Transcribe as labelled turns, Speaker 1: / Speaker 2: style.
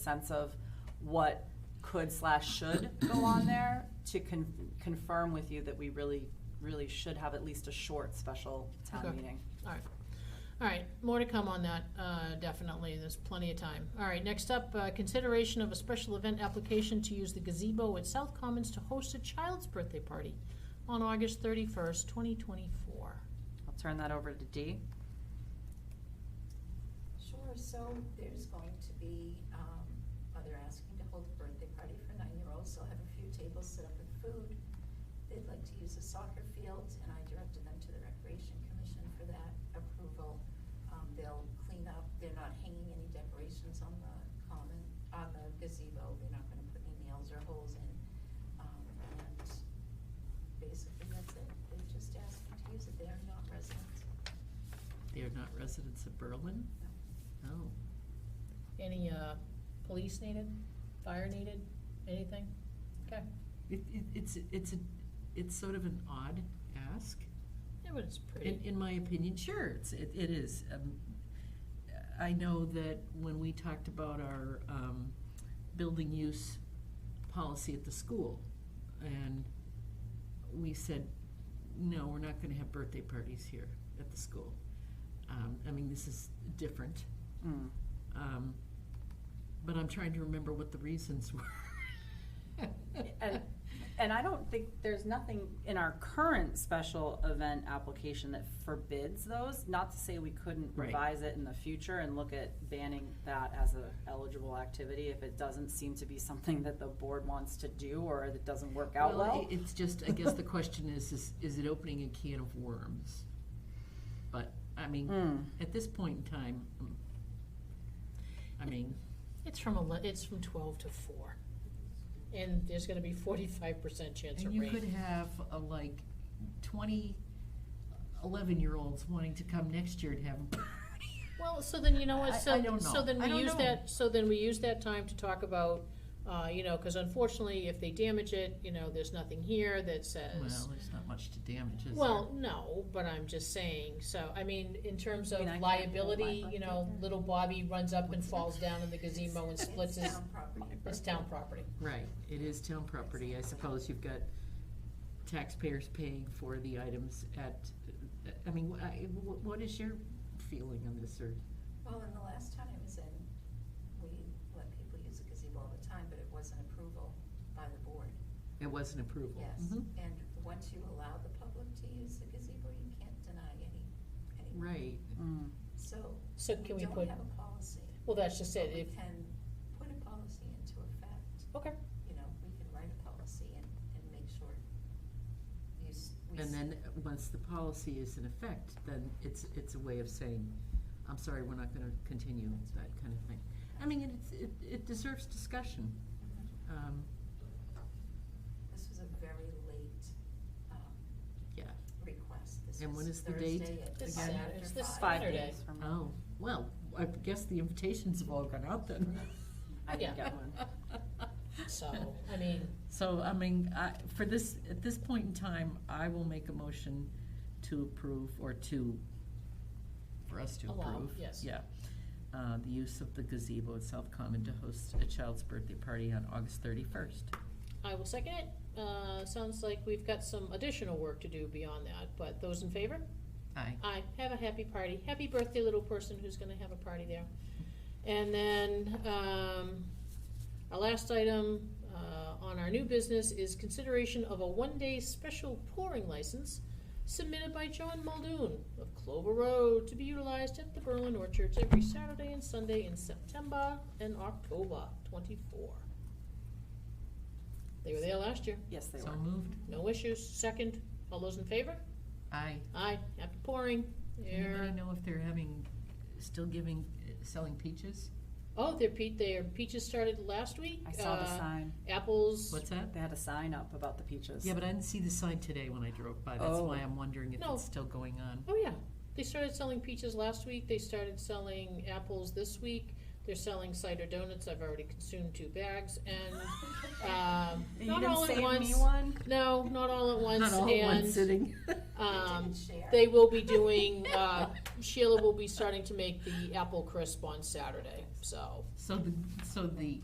Speaker 1: sense of what could slash should go on there to con- confirm with you that we really, really should have at least a short special town
Speaker 2: Okay.
Speaker 1: meeting.
Speaker 2: All right. All right, more to come on that, uh, definitely, there's plenty of time. All right, next up, uh, consideration of a special event application to use the gazebo at South Commons to host a child's birthday party on August thirty-first, twenty twenty-four.
Speaker 1: I'll turn that over to Dee.
Speaker 3: Sure, so there's going to be, um, oh, they're asking to hold a birthday party for nine-year-olds, they'll have a few tables set up with food. They'd like to use a soccer field, and I directed them to the Recreation Commission for that approval. Um, they'll clean up, they're not hanging any decorations on the common, on the gazebo, they're not gonna put any nails or holes in. Um, and basically, that's it, they're just asking to use it, they are not residents,
Speaker 4: They're not residents of Berlin? Oh.
Speaker 3: no.
Speaker 4: No.
Speaker 2: Any, uh, police needed, fire needed, anything? Okay,
Speaker 4: It, it, it's, it's, a it's sort of an odd ask,
Speaker 2: yeah, but it's
Speaker 4: in,
Speaker 2: pretty.
Speaker 4: in my opinion, sure, it's, it, it is. Um, I know that when we talked about our, um, building use policy at the school, and we said, no, we're not gonna have birthday parties here at the school. Um, I mean, this is different,
Speaker 1: Mm.
Speaker 4: um, but I'm trying to remember what the reasons were.
Speaker 1: And, and I don't think, there's nothing in our current special event application that forbids those. Not to say we couldn't
Speaker 4: Right.
Speaker 1: revise it in the future and look at banning that as a eligible activity if it doesn't seem to be something that the board wants to do or that doesn't work out well.
Speaker 4: i- It's just, I guess the question is, is, is it opening a can of worms? But, I mean,
Speaker 1: Mm.
Speaker 4: at this point in time, mm, I mean,
Speaker 2: It's from ele- it's from twelve to four. And there's gonna be forty-five percent chance
Speaker 4: and
Speaker 2: of
Speaker 4: you
Speaker 2: rain.
Speaker 4: could have a like twenty eleven-year-olds wanting to come next year to have a party.
Speaker 2: Well, so then, you know
Speaker 4: I-
Speaker 2: what,
Speaker 4: I
Speaker 2: so,
Speaker 4: don't know.
Speaker 2: so then
Speaker 4: I
Speaker 2: we
Speaker 4: don't
Speaker 2: use
Speaker 4: know.
Speaker 2: that, so then we use that time to talk about, uh, you know, cause unfortunately, if they damage it, you know, there's nothing here that says.
Speaker 4: Well, there's not much to damage, is there?
Speaker 2: Well, no, but I'm just saying, so, I mean, in terms of
Speaker 1: mean, I can't
Speaker 2: liability,
Speaker 1: hold my
Speaker 2: you
Speaker 1: butt
Speaker 2: know,
Speaker 1: either.
Speaker 2: little Bobby runs up and
Speaker 4: What's that?
Speaker 2: falls down in the gazebo and splits
Speaker 3: It's
Speaker 2: his,
Speaker 3: town property.
Speaker 2: it's town property.
Speaker 4: Right, it is town property, I suppose you've got taxpayers paying for the items at, I mean, wh- I- wh- what is your feeling on this, or?
Speaker 3: Well, and the last time it was in, we let people use the gazebo all the time, but it wasn't approval by the board,
Speaker 4: It was an approval. Mm-hmm.
Speaker 3: yes. And once you allow the public to use the gazebo, you can't deny any, any,
Speaker 4: Right.
Speaker 1: Mm.
Speaker 3: so.
Speaker 2: So can we
Speaker 3: don't
Speaker 2: put,
Speaker 3: have a policy.
Speaker 2: well, that's just
Speaker 3: but
Speaker 2: it,
Speaker 3: We
Speaker 2: if,
Speaker 3: can put a policy into effect,
Speaker 2: okay,
Speaker 3: you know, we can write a policy and, and make sure you, s- we. s-
Speaker 4: And then, uh, once the policy is in effect, then it's, it's a way of saying, I'm sorry, we're not gonna continue, that kind of thing. I mean, it- it's, it, it deserves discussion. Um,
Speaker 3: This was a very late, um,
Speaker 4: yeah,
Speaker 3: request, this
Speaker 4: And when
Speaker 3: is
Speaker 4: is the date
Speaker 3: Thursday at
Speaker 2: This
Speaker 3: five
Speaker 2: Saturday.
Speaker 3: after
Speaker 2: It's this
Speaker 1: Five
Speaker 2: Saturday.
Speaker 1: days from now.
Speaker 4: oh, well, I guess the invitations have all gone out then.
Speaker 1: I
Speaker 2: Yeah.
Speaker 1: didn't get one.
Speaker 2: so, I mean,
Speaker 4: So, I mean, I, for this, at this point in time, I will make a motion to approve, or to, for us to approve.
Speaker 2: Allow, yes.
Speaker 4: Yeah, uh, the use of the gazebo at South Common to host a child's birthday party on August thirty-first.
Speaker 2: I will second it, uh, sounds like we've got some additional work to do beyond that, but those in favor?
Speaker 4: Aye.
Speaker 2: I have a happy party. Happy birthday, little person who's gonna have a party there. And then, um, our last item, uh, on our new business is consideration of a one-day special pouring license submitted by John Muldoon of Clover Road to be utilized at the Berlin Orchards every Saturday and Sunday in September and October twenty-four. They were there last year.
Speaker 1: Yes, they
Speaker 4: So
Speaker 1: were.
Speaker 4: moved.
Speaker 2: No issues. Second, all those in favor?
Speaker 4: Aye.
Speaker 2: Aye, happy pouring. There.
Speaker 4: Anybody know if they're having, still giving, uh, selling peaches?
Speaker 2: Oh, their pe- their peaches started last week.
Speaker 1: I saw the
Speaker 2: Uh,
Speaker 1: sign.
Speaker 2: Apples.
Speaker 4: What's that?
Speaker 1: They had a sign up about the peaches.
Speaker 4: Yeah, but I didn't see the sign today when I drove by, that's
Speaker 1: Oh.
Speaker 4: why I'm wondering if
Speaker 2: No.
Speaker 4: it's still going on.
Speaker 2: Oh yeah, they started selling peaches last week. They started selling apples this week. They're selling cider donuts, I've already consumed two bags, and, um,
Speaker 1: You
Speaker 2: not
Speaker 1: didn't
Speaker 2: all at
Speaker 1: save
Speaker 2: once.
Speaker 1: me one?
Speaker 2: No, not all at once,
Speaker 4: Not all in one
Speaker 2: and,
Speaker 4: sitting.
Speaker 2: um,
Speaker 3: didn't share.
Speaker 2: they will be doing, uh, Sheila will be starting to make the apple crisp on Saturday, so.
Speaker 4: So the, so the